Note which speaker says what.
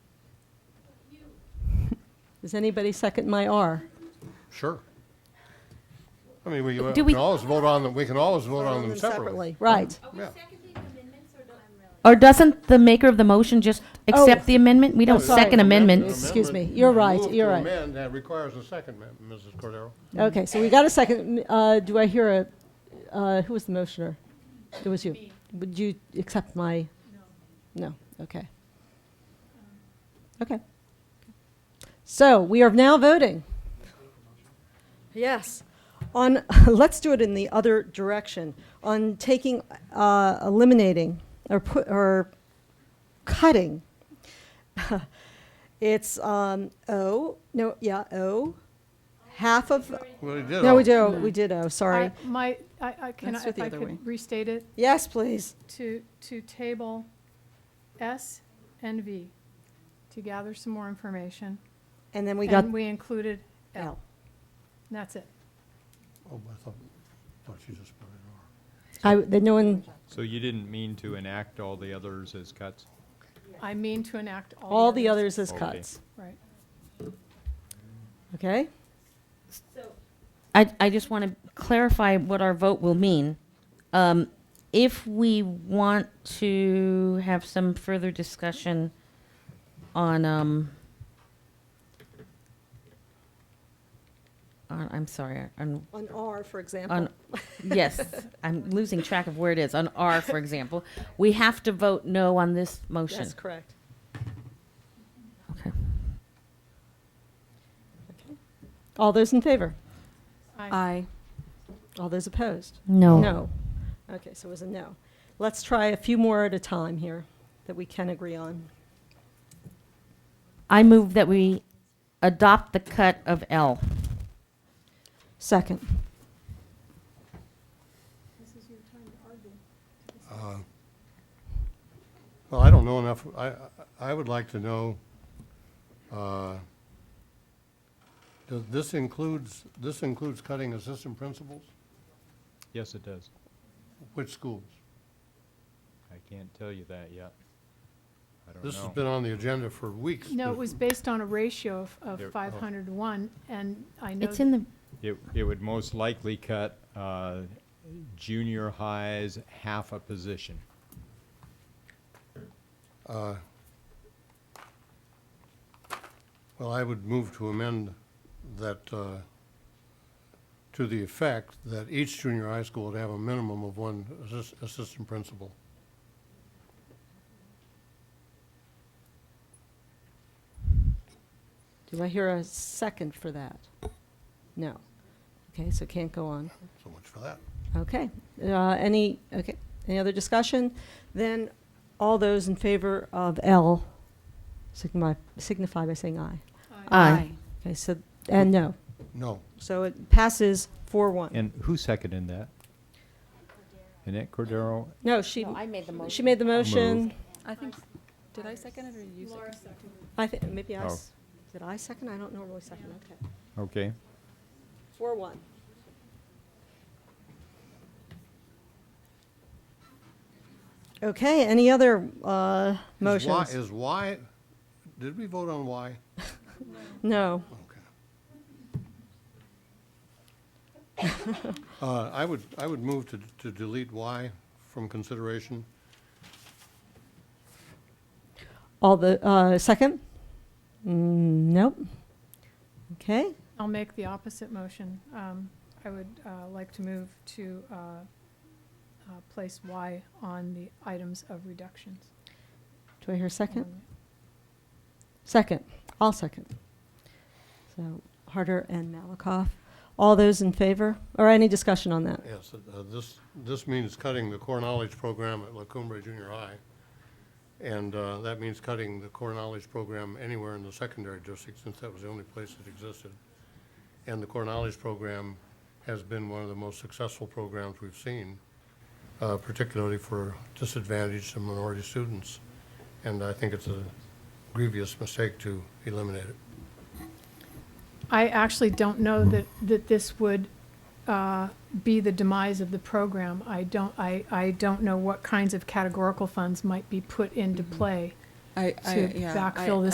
Speaker 1: Does anybody second my R?
Speaker 2: Sure. I mean, we we
Speaker 3: Do we-
Speaker 2: can always vote on them, we can always vote on them separately.
Speaker 1: Right.
Speaker 4: Are we
Speaker 2: Yeah.
Speaker 4: seconding amendments or not?
Speaker 3: Or doesn't the maker of the motion just accept
Speaker 1: Oh.
Speaker 3: the amendment? We don't
Speaker 1: sorry.
Speaker 3: second amendments.
Speaker 1: Excuse me.
Speaker 2: Amendment-
Speaker 1: You're right.
Speaker 2: move to
Speaker 1: You're right.
Speaker 2: amend, that requires a second, ma'am, Mrs. Cordero.
Speaker 5: Mm-hmm.
Speaker 1: Okay, so we got a second. Uh, Do I hear a, uh, who was the motioner? It was you. Would you accept my? No. No, okay. Okay. So we are now voting
Speaker 5: Yes. On, let's do it in the other direction, on taking, uh, eliminating, or put, or cutting. It's, um, O, no, yeah, O, half of,
Speaker 2: Well, he did
Speaker 5: no, we
Speaker 2: all-
Speaker 5: do, we did O, sorry.
Speaker 6: I- My, I, I can,
Speaker 7: Let's do
Speaker 6: if
Speaker 7: the
Speaker 6: I
Speaker 7: other way.
Speaker 6: could restate it,
Speaker 5: Yes, please.
Speaker 6: to, to table S and V, to gather some more information.
Speaker 5: And then we got
Speaker 6: And we included L.
Speaker 5: L.
Speaker 6: And that's it.
Speaker 2: Oh, I thought, thought you just put it
Speaker 1: I, that no one,
Speaker 8: So you didn't mean to enact all the others as cuts?
Speaker 6: I mean to enact all.
Speaker 1: all the others as cuts.
Speaker 6: Right.
Speaker 1: Okay?
Speaker 3: I, I just want to clarify what our vote will mean. Um, if we want to have some further discussion on, um, on, I'm sorry, on
Speaker 5: on R, for
Speaker 3: on
Speaker 5: example.
Speaker 3: yes i'm losing track of where it is on r for example we have to vote no on this motion
Speaker 5: That's correct.
Speaker 3: okay
Speaker 1: All those in favor? Uh,
Speaker 6: I,
Speaker 7: Aye.
Speaker 1: All those opposed?
Speaker 3: no
Speaker 1: No. Okay, so it was a no. Let's try a few more at a time here that we can agree on.
Speaker 3: i move that we adopt the cut of l
Speaker 1: Second.
Speaker 2: on. Uh, Well, I don't know enough, I, I- I would like to know, uh, does this includes, this includes cutting assistant principals?
Speaker 8: Yes, it does.
Speaker 2: Which schools?
Speaker 8: I can't tell you that yet. I don't know.
Speaker 2: This has been on the agenda for weeks.
Speaker 6: no, it was based on a ratio of,
Speaker 8: There- oh.
Speaker 6: of five hundred to one, and I know.
Speaker 3: it's in the
Speaker 8: It, it would most likely cut, uh, junior highs half a position.
Speaker 2: Well, I would move to amend that, uh, to the effect that each junior high school would have a minimum of one assist- assistant principal.
Speaker 1: Do I hear a second for that? No. Okay, so can't go on.
Speaker 2: So much for that.
Speaker 1: Okay, uh, any, okay, any other discussion? Then, all those in favor of L signify, signify by saying aye.
Speaker 3: Aye.
Speaker 1: Okay, so, and no,
Speaker 2: No.
Speaker 5: So it passes four one.
Speaker 8: And who seconded that? Annette Cordero?
Speaker 1: no, she,
Speaker 3: made the
Speaker 1: she made the motion.
Speaker 8: Moved.
Speaker 7: I think, did I second it or you seconded it?
Speaker 1: I think, maybe I,
Speaker 8: Oh.
Speaker 1: s- did I second? I don't normally second, okay.
Speaker 8: Okay.
Speaker 1: Four one.
Speaker 5: Okay, any other, uh,
Speaker 2: Is Y-
Speaker 5: motions?
Speaker 2: Is Y, did we vote on Y?
Speaker 5: No.
Speaker 2: Okay. Uh, I would, I would move to, to delete Y from consideration.
Speaker 1: All the, uh, second? Mm, Nope. Okay,
Speaker 6: I'll make the opposite motion. Um, I would uh, like to move to uh, uh, place Y on the items of reductions.
Speaker 1: do I hear a second? Second, I'll second. So Harder and Malakoff. All those in favor, or any discussion on that?
Speaker 2: Yes, uh, this, this means cutting the core knowledge program at La Cumbre Junior High. And uh, that means cutting the core knowledge program anywhere in the secondary district, since that was the only place that existed. And the core knowledge program has been one of the most successful programs we've seen, uh, particularly for disadvantaged and minority students. And I think it's a grievous mistake to eliminate it.
Speaker 6: I actually don't know that, that this would uh, be the demise of the program. I don't, I, I don't know what kinds of categorical funds might be put into play
Speaker 7: I, I,
Speaker 6: to
Speaker 7: yeah. I-
Speaker 6: backfill this